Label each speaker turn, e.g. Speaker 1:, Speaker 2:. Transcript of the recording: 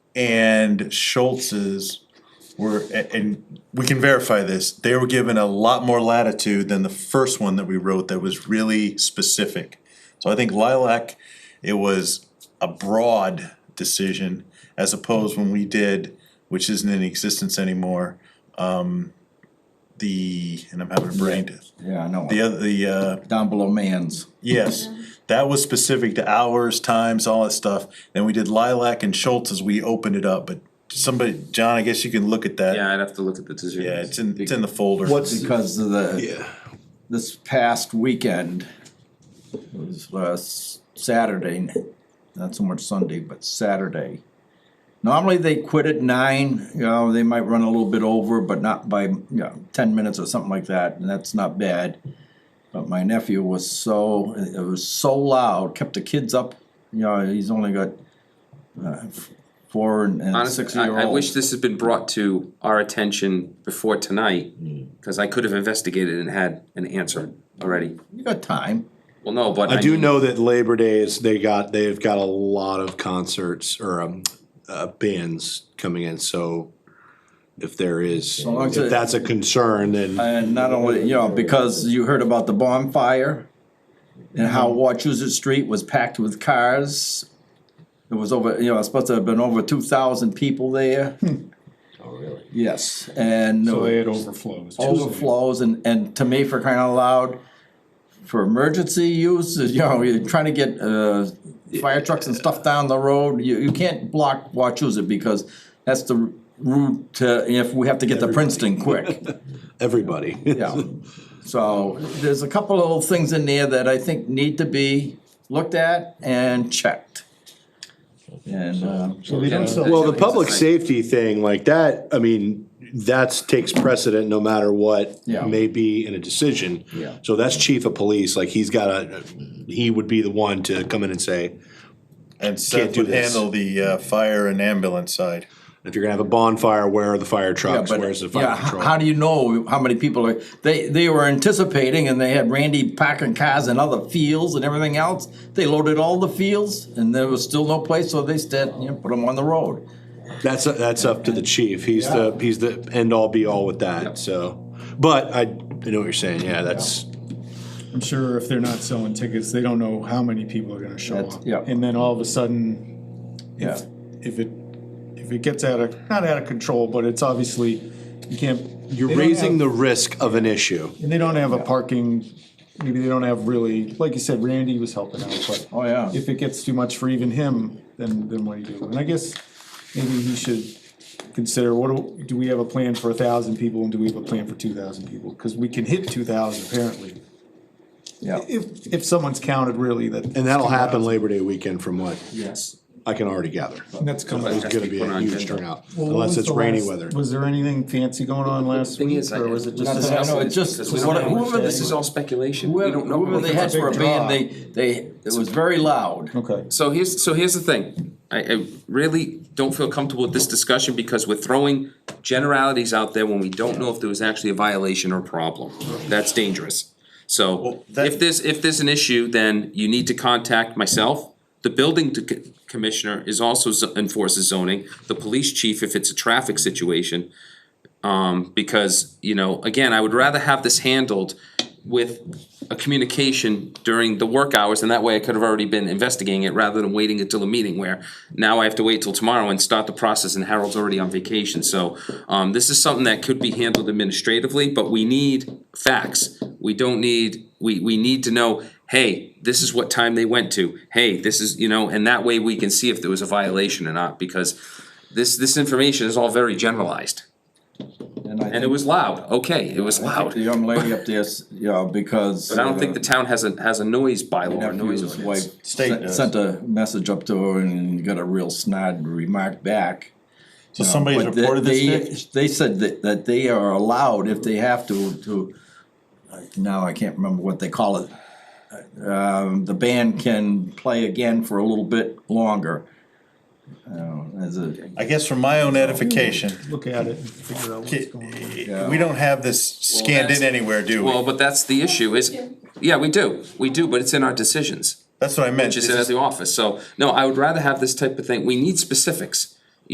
Speaker 1: and Schultz's were, a- and we can verify this, they were given a lot more latitude than the first one that we wrote that was really specific. So I think Lilac, it was a broad decision as opposed when we did, which isn't in existence anymore, um, the, and I'm having a brain, death.
Speaker 2: Yeah, I know.
Speaker 1: the other, the, uh,
Speaker 2: Down below man's.
Speaker 1: Yes, that was specific to hours, times, all that stuff. Then we did Lilac and Schultz as we opened it up, but somebody, John, I guess you can look at that.
Speaker 3: Yeah, I'd have to look at the decision.
Speaker 1: Yeah, it's in, it's in the folder.
Speaker 2: Because of the, this past weekend, it was uh, s- Saturday, not so much Sunday, but Saturday. Normally they quit at nine, you know, they might run a little bit over, but not by, you know, ten minutes or something like that, and that's not bad. But my nephew was so, it was so loud, kept the kids up, you know, he's only got uh, f- four and- and
Speaker 3: Honestly,
Speaker 2: six-year-old.
Speaker 3: I, I wish this had been brought to our attention before tonight,
Speaker 4: Mm.
Speaker 3: cause I could have investigated and had an answer already.
Speaker 2: You got time.
Speaker 3: Well, no, but.
Speaker 4: I do
Speaker 3: mean-
Speaker 4: know that Labor Day is, they got, they've got a lot of concerts or um, uh, bands coming in, so if there is,
Speaker 2: long as it-
Speaker 4: if that's a concern, then
Speaker 2: And not only, you know, because you heard about the bonfire and how Wachusett Street was packed with cars. It was over, you know, it's supposed to have been over two thousand people there. Oh, really? Yes, and
Speaker 5: So it overflows.
Speaker 2: overflows and, and to me for crying out loud, for emergency use, you know, you're trying to get, uh, fire trucks and stuff down the road, you, you can't block Wachusett because that's the route to, if we have to get to Princeton quick.
Speaker 4: everybody.
Speaker 2: Yeah, so there's a couple of little things in there that I think need to be looked at and checked. And, uh,
Speaker 3: Yeah,
Speaker 4: Well,
Speaker 3: that's-
Speaker 4: the public
Speaker 3: that's-
Speaker 4: safety thing like that, I mean, that's takes precedent no matter what
Speaker 2: Yeah.
Speaker 4: may be in a decision.
Speaker 2: Yeah.
Speaker 4: So that's chief of police, like he's gotta, he would be the one to come in and say,
Speaker 1: And Seth
Speaker 4: do
Speaker 1: would
Speaker 4: this.
Speaker 1: handle the, uh, fire and ambulance side.
Speaker 4: if you're gonna have a bonfire, where are the fire
Speaker 2: yeah,
Speaker 4: trucks,
Speaker 2: but,
Speaker 4: where's the
Speaker 2: yeah,
Speaker 4: fire
Speaker 2: h-
Speaker 4: patrol?
Speaker 2: how do you know how many people are, they, they were anticipating and they had Randy packing cars in other fields and everything else. They loaded all the fields and there was still no place, so they said, you know, put them on the road.
Speaker 4: That's, that's up to the chief, he's the, he's the end all be all with that, so. But I, I know what you're saying, yeah, that's,
Speaker 5: I'm sure if they're not selling tickets, they don't know how many people are gonna show
Speaker 2: That's-
Speaker 5: up.
Speaker 2: yeah.
Speaker 5: And then all of a sudden,
Speaker 2: Yeah.
Speaker 5: if, if it, if it gets out of, not out of control, but it's obviously, you can't.
Speaker 4: you're
Speaker 5: they don't
Speaker 4: raising
Speaker 5: have-
Speaker 4: the risk of an issue.
Speaker 5: And they don't have a parking, maybe they don't have really, like you said, Randy was helping out, but.
Speaker 2: Oh, yeah.
Speaker 5: If it gets too much for even him, then, then what do you do? And I guess maybe he should consider, what do, do we have a plan for a thousand people and do we have a plan for two thousand people? Cause we can hit two thousand apparently,
Speaker 2: Yeah,
Speaker 5: if, if someone's counted really that.
Speaker 4: And that'll happen Labor Day weekend from what
Speaker 5: Yes.
Speaker 4: I can already gather.
Speaker 5: And that's coming.
Speaker 4: It's gonna be a huge turnout, unless it's rainy weather.
Speaker 5: Was there anything fancy going on last
Speaker 3: Thing
Speaker 5: week,
Speaker 3: is, I-
Speaker 5: or was it
Speaker 3: Not
Speaker 5: just?
Speaker 3: that I
Speaker 2: know,
Speaker 3: know,
Speaker 2: it's just-
Speaker 3: because we
Speaker 2: what-
Speaker 3: don't know.
Speaker 2: whoever
Speaker 3: This
Speaker 2: they-
Speaker 3: is all speculation, we don't know.
Speaker 2: whoever
Speaker 3: what
Speaker 2: they had
Speaker 3: the-
Speaker 2: for a
Speaker 5: big
Speaker 2: band,
Speaker 5: draw.
Speaker 2: they, they, it was very loud.
Speaker 5: Okay.
Speaker 3: So here's, so here's the thing, I, I really don't feel comfortable with this discussion because we're throwing generalities out there when we don't know if there was actually a violation or problem. That's dangerous. So
Speaker 1: that-
Speaker 3: if there's, if there's an issue, then you need to contact myself. The building to- commissioner is also zo- enforces zoning, the police chief if it's a traffic situation. Um, because, you know, again, I would rather have this handled with a communication during the work hours, and that way I could have already been investigating it rather than waiting until a meeting where now I have to wait till tomorrow and start the process and Harold's already on vacation, so um, this is something that could be handled administratively, but we need facts. We don't need, we, we need to know, hey, this is what time they went to, hey, this is, you know, and that way we can see if there was a violation or not, because this, this information is all very generalized.
Speaker 2: And I
Speaker 3: And it
Speaker 2: think-
Speaker 3: was loud, okay, it was
Speaker 2: I think
Speaker 3: loud.
Speaker 2: The young lady up there, s- you know, because.
Speaker 3: But I don't think the town has a, has a noise bylaw, or noise
Speaker 2: nephew's
Speaker 3: ordinance.
Speaker 2: wife
Speaker 1: State
Speaker 2: sent,
Speaker 1: does.
Speaker 2: sent a message up to her and got a real snide remark back.
Speaker 1: So somebody's
Speaker 2: But they-
Speaker 1: reported this, Nick?
Speaker 2: They they said that, that they are allowed if they have to, to, now I can't remember what they call it. Um, the band can play again for a little bit longer. Uh, as a,
Speaker 1: I guess for my own edification,
Speaker 5: Look at it and figure out what's going on.
Speaker 1: we don't have this scanned in
Speaker 3: that's-
Speaker 1: anywhere, do
Speaker 3: Well,
Speaker 1: we?
Speaker 3: but that's the issue is, yeah, we do, we do, but it's in our decisions,
Speaker 1: That's what I meant.
Speaker 3: just
Speaker 1: This
Speaker 3: in at
Speaker 1: is-
Speaker 3: the office, so, no, I would rather have this type of thing, we need specifics.